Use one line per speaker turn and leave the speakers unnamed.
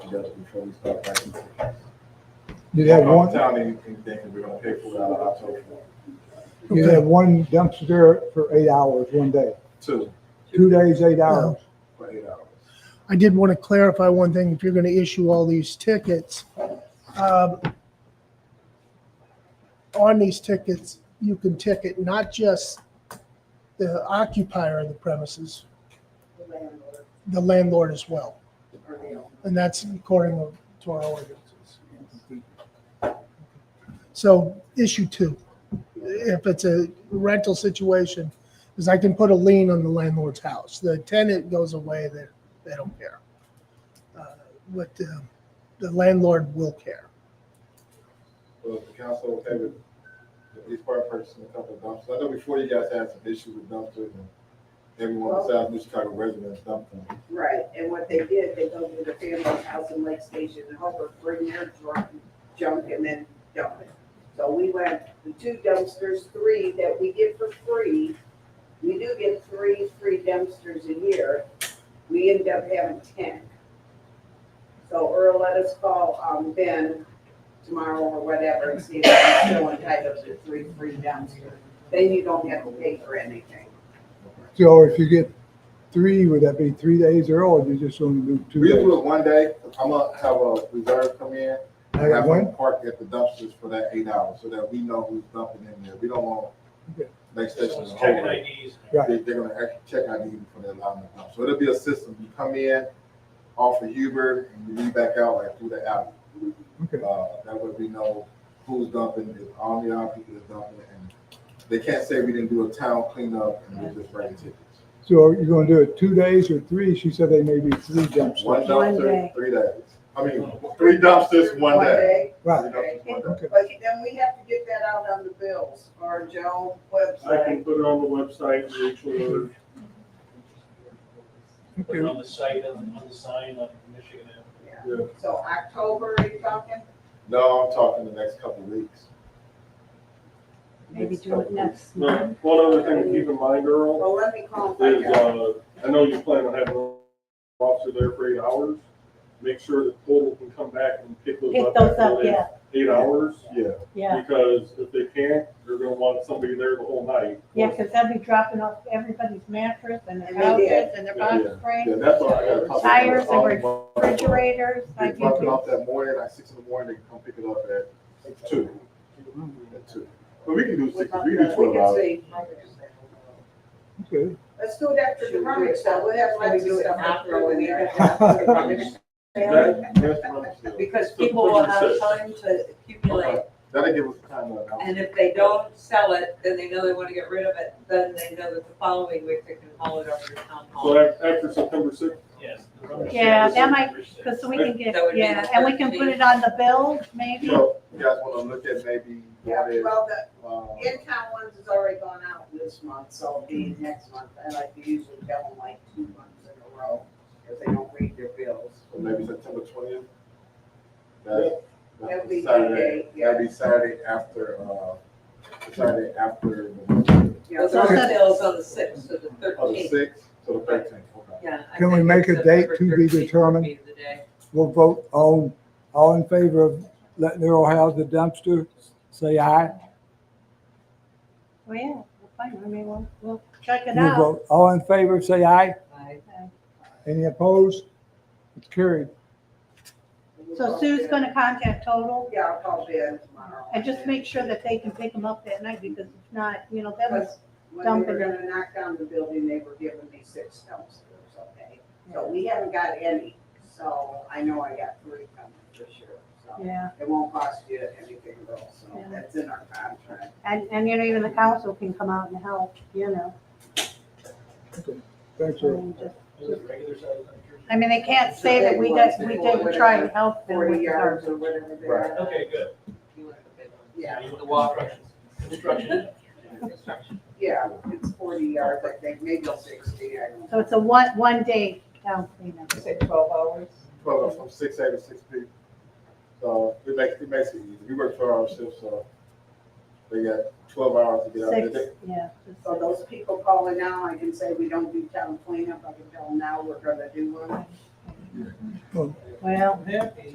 just before we start writing.
You have
Don't
one,
tell me anything, we're gonna pay for it out of our total.
you have one dumpster there for eight hours one day,
Two,
two days, eight hours.
for eight hours.
I did want to clarify one thing, if you're going to issue all these tickets. um, On these tickets, you can ticket not just the occupier of the premises, the landlord as well. And that's according to our ordinances. So issue two, if it's a rental situation, is I can put a lien on the landlord's house. The tenant goes away, they they don't care. Uh, But uh, the landlord will care.
Well, if the council okay with at least part purchasing a couple of dumpsters. I know before you guys had some issues with dumpsters and everyone in South New Chicago residents dumped them.
Right, and what they did, they go to the family's house in Lake Station and Hooper, bring their drunk junk and then dump it. So we went, the two dumpsters, three that we get for free, we do get three free dumpsters a year, we end up having ten. So Earl, let us call, um, Ben tomorrow or whatever and see if he's still entitled to three free dumpsters. Then you don't have to pay for anything.
So if you get three, would that be three days or all, you just only do two
We'll do
days?
it one day. I'm gonna have a reserve come in
I
have
got
them
one,
park at the dumpsters for that eight hours, so that we know who's dumping in there. We don't want
Okay.
next station.
Someone's
to
checking
hold it.
IDs.
Right.
They, they're gonna actually check ID before they allow them to dump. So it'll be a system. You come in, off of Huber, and you leave back out like through the alley.
okay,
Uh, that way we know who's dumping, if all the other people is dumping, and they can't say we didn't do a town cleanup and we're just writing tickets.
so are you gonna do it two days or three? She said they may be three
One
dumpsters.
dumpster, three days. I mean, three dumpsters, one day. Three
Right,
dumpsters, one day.
okay,
But then we have to get that out on the bills or Joe
I
website.
can put it on the website, Rachel,
Put it on the site, on on the sign on Michigan Avenue.
Yeah.
or, yeah.
So October, are you talking?
No, I'm talking the next couple of weeks.
Maybe do it
couple of weeks.
next month.
Now, one other thing to keep in mind, Earl,
Well, let me
Oh,
call
is,
my guy.
uh, I know you plan on having an officer there for eight hours. Make sure that total can come back and pick those
Pick
up.
those
after
up,
they-
yeah,
Eight hours,
Yeah,
yeah.
because if they can't, they're gonna want somebody there the whole night.
Yeah, because they'll be dropping off everybody's mattress and their
And they did.
houses and their box
yeah,
springs,
that's all I gotta talk about.
Tires and
All month.
refrigerators,
They
like you
drop it
do.
off that morning, like six in the morning, they can come pick it up at two. At two. But we can do
We
six, we can do twelve
can
hours.
see.
okay.
Let's do it after the rummage sale. We'll have lots of stuff to throw in there.
That- that's what I'm saying.
Because
So
people will
purchase it.
have time to accumulate,
Okay. That'll give us time to announce.
and if they don't sell it, then they know they wanna get rid of it, then they know that the following week they can haul it over to town
So
hall.
af- after September sixth,
Yes.
Yeah, that might- Because we can get,
That would be
yeah,
the
and we can put it on the bills, maybe.
So you guys wanna look at maybe
Yeah,
what is,
well, the
um,
in-town ones has already gone out this month, so it'll be next month. I like to usually tell them like two months in a row if they don't read their bills.
maybe September twentieth?
That'd
Saturday,
be Monday, yeah.
that'd be Saturday after, uh, Saturday after
Yeah,
Those
so-
are sales on the sixth to the
Oh, the
thirteenth,
sixth to the thirteenth, okay.
yeah. I
Can we
think
make a date to
September
be
13th would
determined?
be the day.
We'll vote on, all in favor of letting Earl house the dumpster, say aye.
Well, yeah, well, fine, I mean, we'll, we'll check it
We'll
out.
vote, all in favor, say aye.
Bye.
Any opposed? It's carried.
So Sue's gonna contact Total
Yeah, I'll call Ben tomorrow.
and just make sure that they can pick them up that night because if not, you know, that was,
Because When they were gonna knock down the building, they were giving me six dumpsters, okay? So we haven't got any, so I know I got three coming for sure, so.
yeah.
It won't cost you anything though, so
Yeah.
that's in our contract.
And, and you know, even the council can come out and help, you know.
Thanks,
I
Earl.
mean, just-
Is it regular size dumpsters?
I mean, they can't say that we didn't, we didn't try to help them
Forty
with our
yards or whatever they
Right.
are.
Okay, good.
Yeah,
The wall. Construction.
yeah, it's forty yards, I think, maybe sixty, I don't know.
So it's a one, one day town cleanup.
Is it twelve hours?
Well, from six A to six P. So it makes, it makes it easy. We work twelve hour shifts, so they got twelve hours to get out
Six,
there.
yeah. just
So those people calling now, I can say we don't do town cleanup, I can tell them now we're gonna do one.
Well,
Well,
I'm happy.